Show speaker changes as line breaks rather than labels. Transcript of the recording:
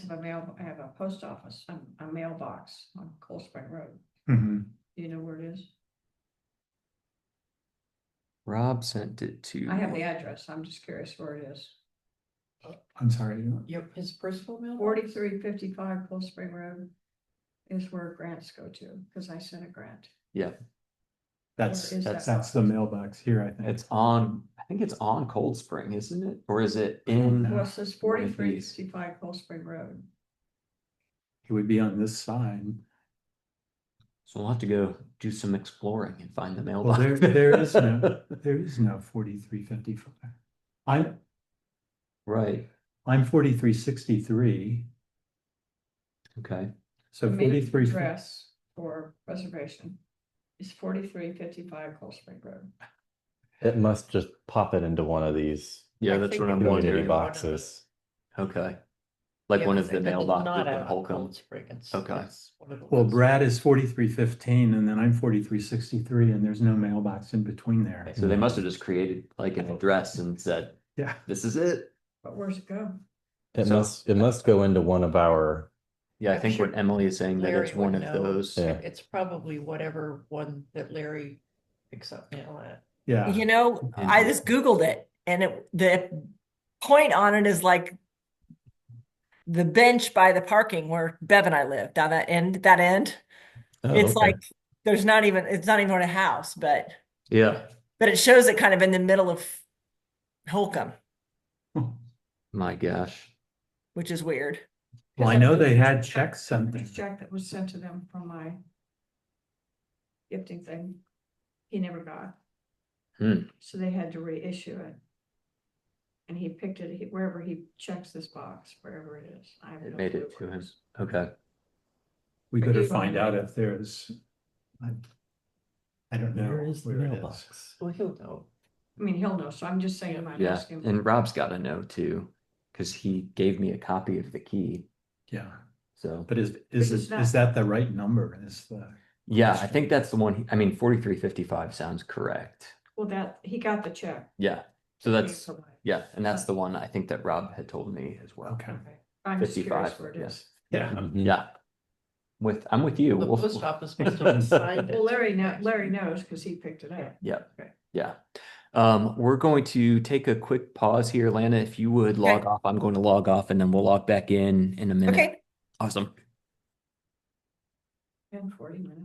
a mail, I have a post office, um, a mailbox on Cold Spring Road.
Mhm.
Do you know where it is?
Rob sent it to.
I have the address. I'm just curious where it is.
I'm sorry. you-
Your, his personal mail?
Forty-three fifty-five Cold Spring Road is where grants go to, because I sent a grant.
That's,
is
that's,
that
that's the mailbox here, I think.
It's on, I think it's on Cold Spring, isn't it? Or is it in?
know.
Well, it says
One of
forty-three
these.
fifty-five Cold Spring Road.
It would be on this side.
So we'll have to go do some exploring and find the
Well,
mailbox.
there, there is no, there is no forty-three fifty-five. I'm,
Right,
I'm forty-three sixty-three,
okay.
so
The main
forty-three.
Address for reservation is forty-three fifty-five Cold Spring Road.
It must just pop it into one of these
Yeah,
I
that's
think
what
it
I'm
would be
wondering.
community
one of
boxes.
Okay. Like
Yeah,
one
'cause
of the
it- it's
mailboxes
not
in
out of
Holcomb.
Cold Spring, it's-
Okay.
it's one of the
Well,
ones-
Brad is forty-three fifteen and then I'm forty-three sixty-three and there's no mailbox in between there.
So they must have just created like an address and said,
Yeah.
this is it.
But where's it go?
It
So-
must, it must go into one of our,
Yeah, I
I'm
think
sure
what Emily is saying that
Larry
it's one
would
of
know.
those.
Yeah.
It's probably whatever one that Larry picks up mail at.
Yeah,
You know,
And-
I just Googled it and it, the point on it is like the bench by the parking where Bev and I live down that end, that end.
Oh,
It's
okay.
like, there's not even, it's not even on a house, but,
Yeah,
but it shows it kind of in the middle of Holcomb,
my gosh.
which is weird.
well, I know they had checks something.
Jack that was sent to them from my gifting thing. He never got.
Hmm.
So they had to reissue it. And he picked it he- wherever he checks this box, wherever it is. I have
It
no
made
clue
it
where
to him.
is.
Okay.
We
But
gotta
you don't
find
know.
out if there's. I I don't know
Where is the
where it is.
mailbox?
Well, he'll know.
I mean, he'll know, so I'm just saying, I'm
Yeah,
asking.
and Rob's got to know too, because he gave me a copy of the key.
Yeah,
So,
but is, is,
it's
it-
not-
is that the right number? Is the,
yeah, I think that's the one. he- I mean, forty-three fifty-five sounds correct.
Well, that, he got the check.
Yeah, so
He
that's,
provided.
yeah, and that's the one I think that Rob had told me as well.
okay,
Okay. I'm just curious
55,
where it
yeah.
is.
yeah,
Mhm.
Yeah. With, I'm with you.
The
We'll-
post office must have signed it.
Well, Larry know, Larry knows because he picked it up.
Yeah,
Okay.
yeah. Um, we're going to take a quick pause here, Lana. If you would log
Okay.
off, I'm going to log off and then we'll log back in in a minute.
Okay.
Awesome.
In forty minutes.